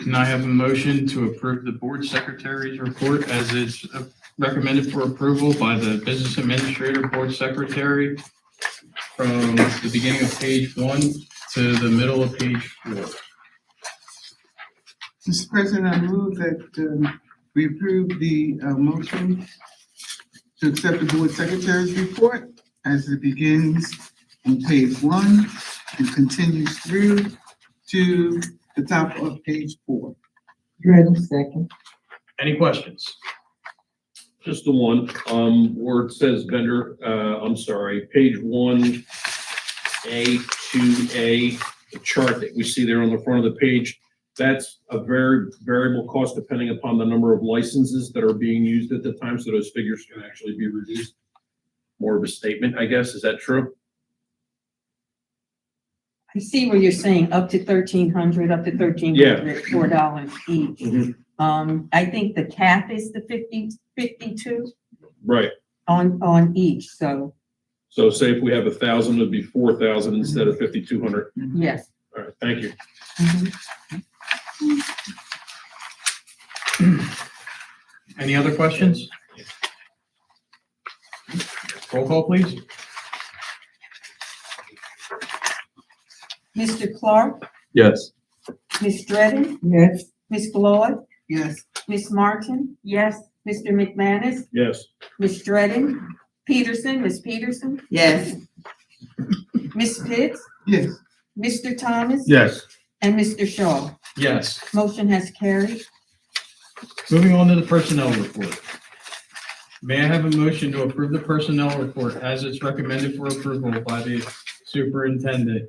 Can I have a motion to approve the board secretary's report as is uh, recommended for approval by the business administrator, board secretary, from the beginning of page one to the middle of page four? Mr. President, I move that um, we approve the uh, motion to accept the board secretary's report as it begins on page one and continues through to the top of page four. Ready, second. Any questions? Just the one, um, where it says vendor, uh, I'm sorry, page one, A, two, A, the chart that we see there on the front of the page, that's a very variable cost depending upon the number of licenses that are being used at the time, so those figures can actually be reduced. More of a statement, I guess, is that true? I see what you're saying, up to thirteen hundred, up to thirteen hundred, four dollars each. Mhm. Um, I think the cap is the fifty, fifty-two Right, on, on each, so, so say if we have a thousand, it'd be four thousand instead of fifty-two hundred, yes. all right, thank you. Mhm. Any other questions? Roll call, please. Mr. Clark, Yes. Ms. Dredden, yes, Ms. Claude, Yes, Ms. Martin? Yes. Mr. McManus, Yes, Ms. Dredden, Peterson, Ms. Peterson, yes, Ms. Pitts, yes. Mr. Thomas? Yes. And Mr. Shaw. Yes. Motion has carried. Moving on to the personnel report. May I have a motion to approve the personnel report as it's recommended for approval by the superintendent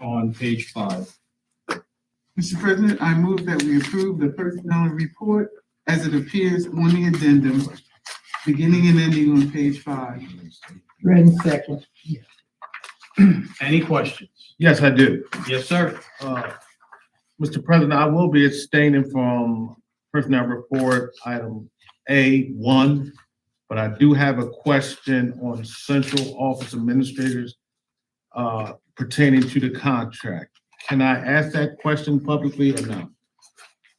on page five? Mr. President, I move that we approve the personnel report as it appears on the addendum, beginning and ending on page five. ready, second, Any questions? Yes, I do. Yes, sir. Uh, Mr. President, I will be abstaining from personnel report item A one, but I do have a question on central office administrators uh, pertaining to the contract. Can I ask that question publicly or no?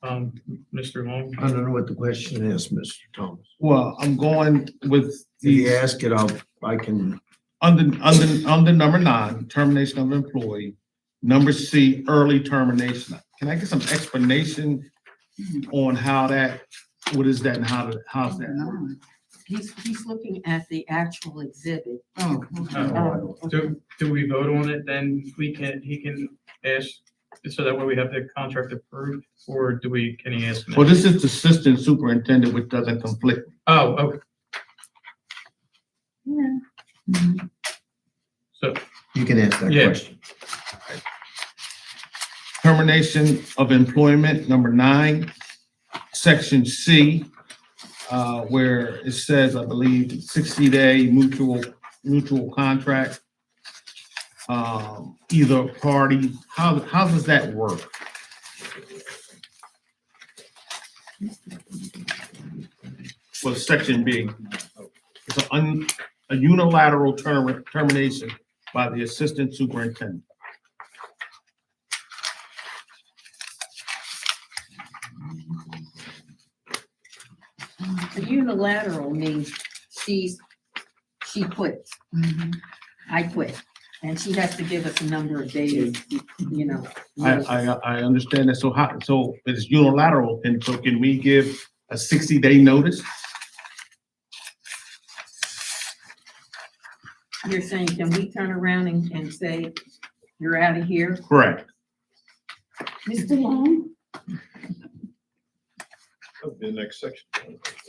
Um, Mr. Long? I don't know what the question is, Mr. Thomas. Well, I'm going with If you the, ask it, I'll, I can, under, under, under number nine, termination of employee. Number C, early termination. Can I get some explanation on how that, what is that and how, to- how's that? He's, he's looking at the actual exhibit. Oh, okay. Oh, okay. Uh, Do, do we vote on it? Then we can, he can ask, so that way we have the contract approved, or do we, can he ask? now? Well, this is the assistant superintendent, which doesn't conflict. Oh, okay, Yeah. so, you can ask that Yeah. question. Termination of employment, number nine, section C, uh, where it says, I believe, sixty-day mutual, mutual contract. Um, either party, how, how does that work? Well, section B, it's an un, a unilateral term, termination by the assistant superintendent. The unilateral means she's, she quits. Mm-hmm. Mhm. I quit. And she has to give us a number of days, you know. I, notice. I, uh. I understand that, so how, so it's unilateral, and so can we give a sixty-day notice? You're saying, can we turn around and, and say, you're out of here? Correct. Mr. Long? the next section.